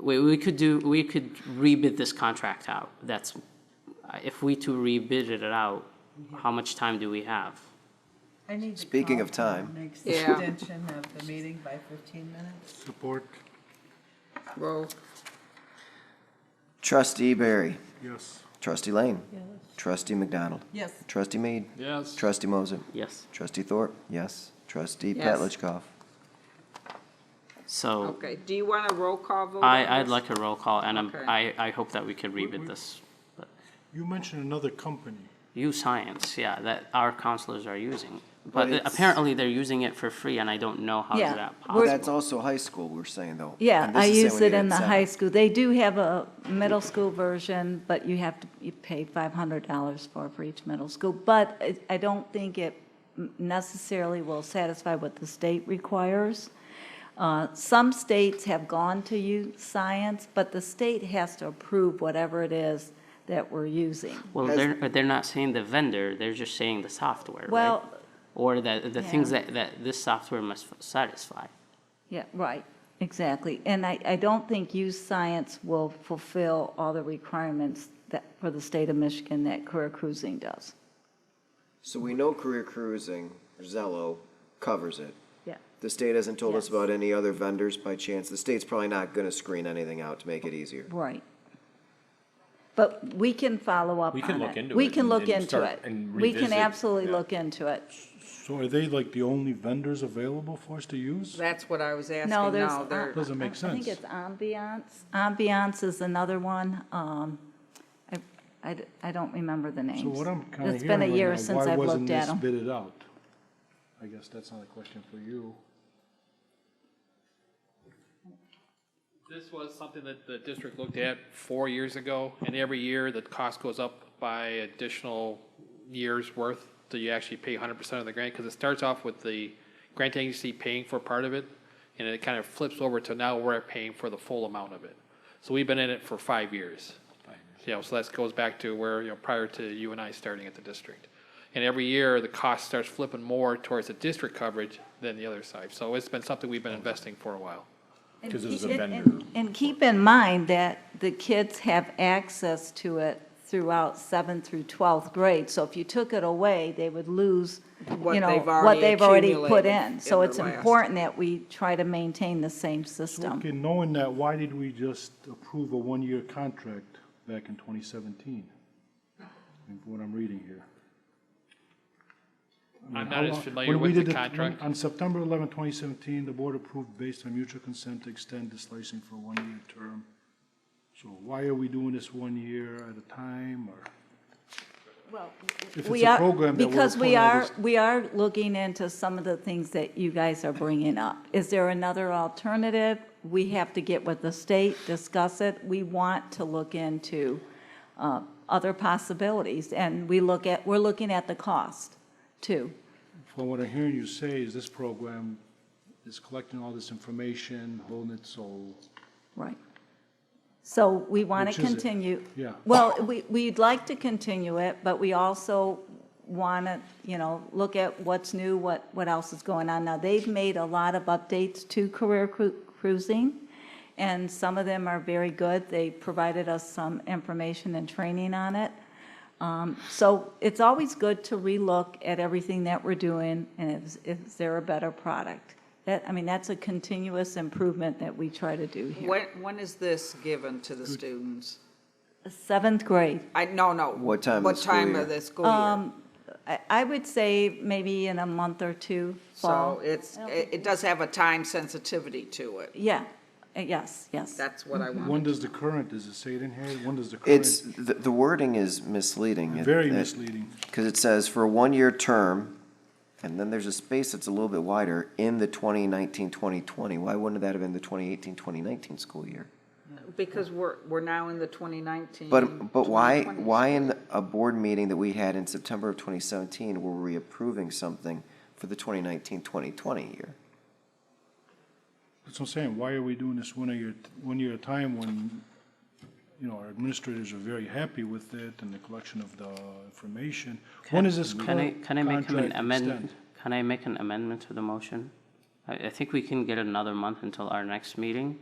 we, we could do, we could rebid this contract out. That's, if we to rebid it out, how much time do we have? I need to Speaking call of for the time. Next Yeah. extension of the meeting by fifteen minutes. Support, Roll, Trustee Barry. yes. Trustee Lane. Trustee McDonald. Yes, Trustee Mead. Yes. Trustee Moser. Yes, Trustee Thorpe. Yes. Trustee Yes. Petlicoff. so okay. Do you want a roll call vote? on I, I'd this? like a roll call and I'm, Okay. I, I hope that we could we- rebid this. But You mentioned another company. U Science, yeah, that our counselors are using. But But uh, it's- apparently they're using it for free and I don't know how Yeah, is that But possible. that's also high school, we're saying, though. Yeah, And this I is saying use we it need in the seven. high school. They do have a middle school version, but you have to, you pay $500 for, for each middle school. But I- I don't think it necessarily will satisfy what the state requires. Uh, Some states have gone to use science, but the state has to approve whatever it is that we're using. Well, Has- they're, but they're not saying the vendor, they're just saying the software, right? Well, Or the, the things Yeah. that, that this software must satisfy. Yeah, right, exactly. And I, I don't think youth science will fulfill all the requirements that, for the state of Michigan that career cruising does. So we know career cruising, Zello, covers it. Yeah. The state hasn't told us Yes. about any other vendors by chance. The state's probably not gonna screen anything out to make it easier. Right. But we can follow up on We it. can look into We it can and- look and into start it. and We can revisit, absolutely yeah. look into it. So are they like the only vendors available for us to use? That's what I was asking. No, there's. uh, No, there- Doesn't make I think sense. it's ambiance. Ambiance is another one. Um, I, I d- I don't remember the names. So what I'm kind of It's been a hearing year right now, since why I've wasn't looked at this them. bidded out? I guess that's not a question for you. This was something that the district looked at four years ago, and every year the cost goes up by additional years' worth till you actually pay hundred percent of the grant, because it starts off with the grant agency paying for part of it, and it kind of flips over to now we're paying for the full amount of it. So we've been in it for five years. You know, so that goes back to where, you know, prior to you and I starting at the district. And every year, the cost starts flipping more towards the district coverage than the other side. So it's been something we've been investing for a while. Because it was a And- vendor. and- And keep in mind that the kids have access to it throughout seventh through 12th grade. So if you took it away, they would lose, What you know, they've what already they've already put accumulated in. So in it's the last. important that we try to maintain the same system. Okay, knowing that, why did we just approve a one-year contract back in 2017? From What I'm reading here. I'm not as Mm. How long- familiar when we with the did contract. On September 11, 2017, the board approved based on mutual consent to extend this license for a one-year term. So why are we doing this one year at a time, or if it's We a are program that we're Because we putting all are, this- we are looking into some of the things that you guys are bringing up. Is there another alternative? We have to get with the state, discuss it. We want to look into uh, other possibilities, and we look at, we're looking at the cost, too. From what I'm hearing you say is this program is collecting all this information, holding it so, Right. So we want Which to is it? continue. Yeah. Well, we, we'd like to continue it, but we also want to, you know, look at what's new, what, what else is going on. Now, they've made a lot of updates to career cru- cruising, and some of them are very good. They provided us some information and training on it. Um, So it's always good to relook at everything that we're doing, and is, is there a better product? That, I mean, that's a continuous improvement that we try to do here. When, when is this given to the students? Seventh grade. I, no, no. What time of What the school time year? of the school Um, year? I, I would say maybe in a month or two, So fall. it's, it it does have a time sensitivity to it. Yeah, Uh, yes, yes. That's what I want. when does the current, does it say it in here? When does the current? It's, the, the wording is misleading. It- Very it- misleading. Because it says for a one-year term, and then there's a space that's a little bit wider, in the 2019, 2020. Why wouldn't that have been the 2018, 2019 school year? Because we're, we're now in the 2019. But, but why, 2020. why in a board meeting that we had in September of 2017 were we approving something for the 2019, 2020 year? That's what I'm saying, why are we doing this one year, one year at a time when, you know, our administrators are very happy with it and the collection of the information? When is this Can I, current can I make an contract amendment? extend? Can I make an amendment to the motion? I, I think we can get another month until our next meeting,